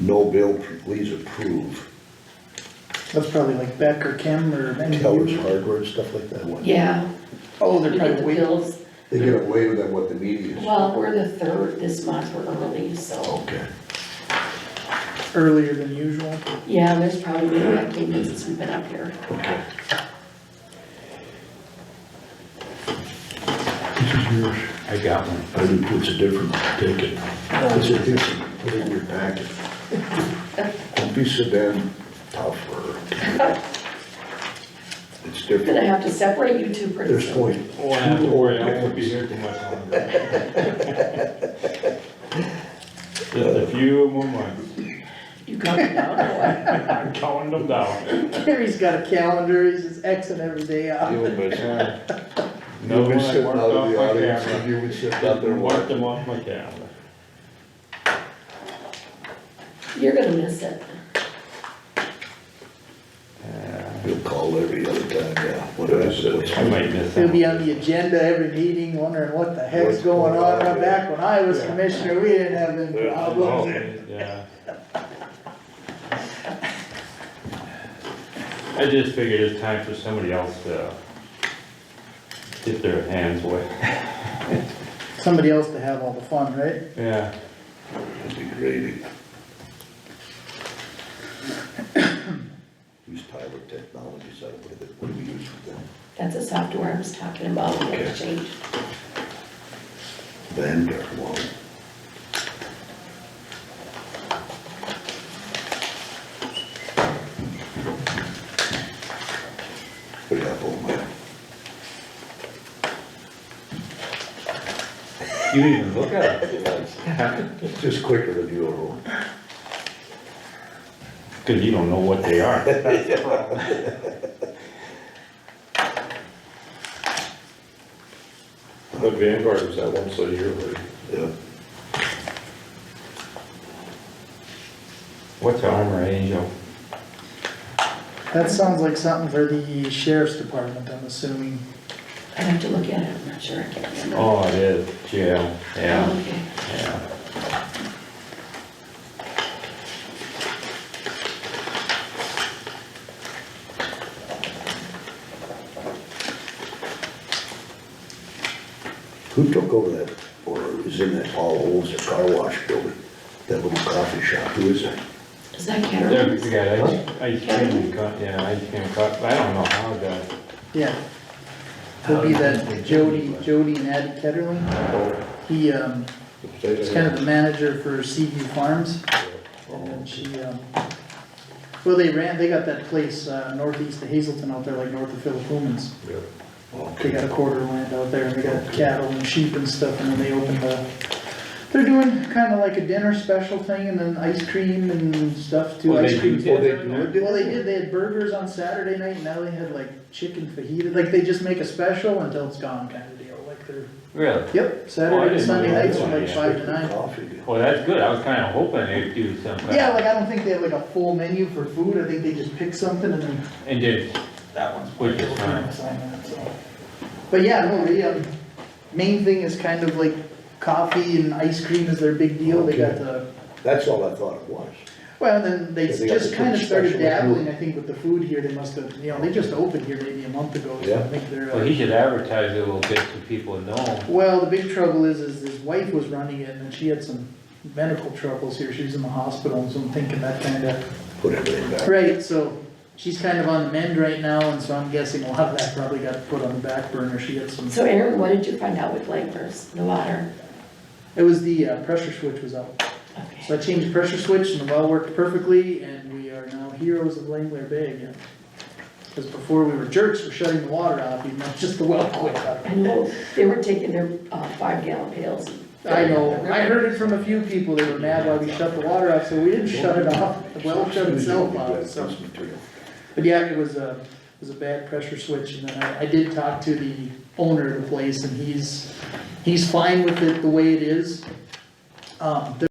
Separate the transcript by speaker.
Speaker 1: no bill, please approve.
Speaker 2: That's probably like Beck or Kim or any of
Speaker 1: Towers
Speaker 2: you.
Speaker 1: Hardware and stuff like that. what?
Speaker 3: Yeah,
Speaker 2: Oh, they're
Speaker 3: we get
Speaker 2: probably
Speaker 3: the
Speaker 2: waiting.
Speaker 3: bills.
Speaker 1: They get away with that, what the media is.
Speaker 3: Well, we're the third this month, we're early, so,
Speaker 1: Okay.
Speaker 2: earlier than usual.
Speaker 3: yeah, there's probably been activities since we've been up here.
Speaker 1: Okay. This is yours. I got one. I didn't put a different one, take it.
Speaker 4: Oh.
Speaker 1: It's a different, put it in your packet. Don't be so damn tough or. It's
Speaker 3: We're gonna
Speaker 1: different.
Speaker 3: have to separate you two pretty
Speaker 1: There's
Speaker 3: soon.
Speaker 1: point.
Speaker 4: Oh, I have to worry, I won't be here too much longer. Just a few more months,
Speaker 3: You got it down or what?
Speaker 4: I'm counting them down.
Speaker 2: Gary's got a calendar, he's just Xing every day Uh, out.
Speaker 1: You'll miss.
Speaker 4: Another
Speaker 1: You've
Speaker 4: one
Speaker 1: been
Speaker 4: I
Speaker 1: sitting
Speaker 4: marked
Speaker 1: out
Speaker 4: off
Speaker 1: of the
Speaker 4: my
Speaker 1: audience,
Speaker 4: calendar.
Speaker 1: and you've been sitting out there
Speaker 4: Mark
Speaker 1: watching.
Speaker 4: them off my calendar.
Speaker 3: You're gonna miss it.
Speaker 1: You'll call every other time, yeah. What is it?
Speaker 4: I might miss
Speaker 2: He'll be
Speaker 4: them.
Speaker 2: on the agenda every meeting, wondering what the heck's
Speaker 1: What's
Speaker 2: going
Speaker 1: going
Speaker 2: on.
Speaker 1: on,
Speaker 2: Now,
Speaker 1: yeah.
Speaker 2: Back when I was
Speaker 4: Yeah.
Speaker 2: commissioner, we didn't have any
Speaker 1: Yeah.
Speaker 2: problems.
Speaker 4: Yeah. I just figured it's time for somebody else to get their hands wet.
Speaker 2: Somebody else to have all the fun, right?
Speaker 4: Yeah.
Speaker 1: Degrading. Use Tyler Technologies, I what do they- what do we use for them?
Speaker 3: That's a software I was talking about, the exchange.
Speaker 1: Vanguard, well, Put it up on my,
Speaker 4: You didn't even look at it.
Speaker 1: it's just quicker than your own.
Speaker 4: Cause you don't know what they are.
Speaker 5: But Vanguard was that once a year, or
Speaker 1: Yeah,
Speaker 4: What's Armor Angel?
Speaker 2: That sounds like something for the sheriff's department, I'm assuming.
Speaker 3: I'd have to look at it, I'm not sure, I can't remember. Oh,
Speaker 4: Oh, it is, jail, yeah,
Speaker 3: Okay.
Speaker 4: yeah.
Speaker 1: who took over that, or is in that Paul Olds, the car wash building? That little coffee shop, who is that?
Speaker 3: Is that Caterpillar's?
Speaker 4: There's the guy, ice- ice cream, cut- yeah, ice cream cut, I don't know how that,
Speaker 2: Yeah. It'll be that Jody, Jody and Addie Ketterling. He, um,
Speaker 5: the
Speaker 2: is
Speaker 5: potato?
Speaker 2: kind of the manager for Seaview Farms. And then she, um, well, they ran, they got that place uh, northeast of Hazelton out there, like north of Philip Pullman's.
Speaker 5: Yeah.
Speaker 1: Oh,
Speaker 2: They got a quarter of land out there, and they got cattle and sheep and stuff, and then they opened the, they're doing kinda like a dinner special thing, and then ice cream and stuff too.
Speaker 4: Well,
Speaker 2: Ice
Speaker 4: they
Speaker 2: cream
Speaker 4: do
Speaker 2: too.
Speaker 4: dinner now?
Speaker 2: Well, they did, they had burgers on Saturday night, and now they had like chicken fajita, like they just make a special until it's gone kinda deal, like they're,
Speaker 4: really?
Speaker 2: yep,
Speaker 4: Oh, I
Speaker 2: Saturday to
Speaker 4: didn't know
Speaker 2: Sunday
Speaker 4: they were
Speaker 2: nights from
Speaker 4: doing
Speaker 2: like
Speaker 4: that.
Speaker 2: five to nine.
Speaker 1: Coffee deal.
Speaker 4: Well, that's good, I was kinda hoping they'd do something.
Speaker 2: Yeah, like I don't think they have like a full menu for food, I think they just pick something and then
Speaker 4: And did,
Speaker 2: that one's.
Speaker 4: Which is fine.
Speaker 2: But yeah, no, the, um, main thing is kind of like coffee and ice cream is their big deal, they got
Speaker 1: Okay.
Speaker 2: the,
Speaker 1: That's all I thought it was.
Speaker 2: well, then they
Speaker 1: Yeah, they got
Speaker 2: just
Speaker 1: the
Speaker 2: kind of
Speaker 1: food
Speaker 2: started
Speaker 1: special, like, ooh.
Speaker 2: dabbling, I think, with the food here, they must have, you know, they just opened here maybe a month ago, so
Speaker 1: Yeah.
Speaker 2: I think they're,
Speaker 4: well,
Speaker 2: uh,
Speaker 4: he should advertise it a little bit so people know.
Speaker 2: well, the big trouble is, is his wife was running it and she had some medical troubles here, she was in the hospital, and so I'm thinking that kind of
Speaker 1: Put everything back.
Speaker 2: Right, so she's kind of on the mend right now, and so I'm guessing a lot of that probably got put on the back burner. She had some,
Speaker 3: So Aaron, what did you find out with Langfors, the water?
Speaker 2: it was the uh, pressure switch was out. So
Speaker 3: Okay.
Speaker 2: I changed the pressure switch and the well worked perfectly, and we are now heroes of Langler Bay again. Because before we were jerks for shutting the water off, even though just the well quit.
Speaker 3: I know, they were taking their, uh, five gallon pails.
Speaker 2: I know, I heard it from a few people, they were mad why we shut the water off, so we didn't shut it off. The well shut itself off, so.
Speaker 1: That's material.
Speaker 2: But yeah, it was a, it was a bad pressure switch, and then I, I did talk to the owner of the place, and he's, he's fine with it the way it is. Um,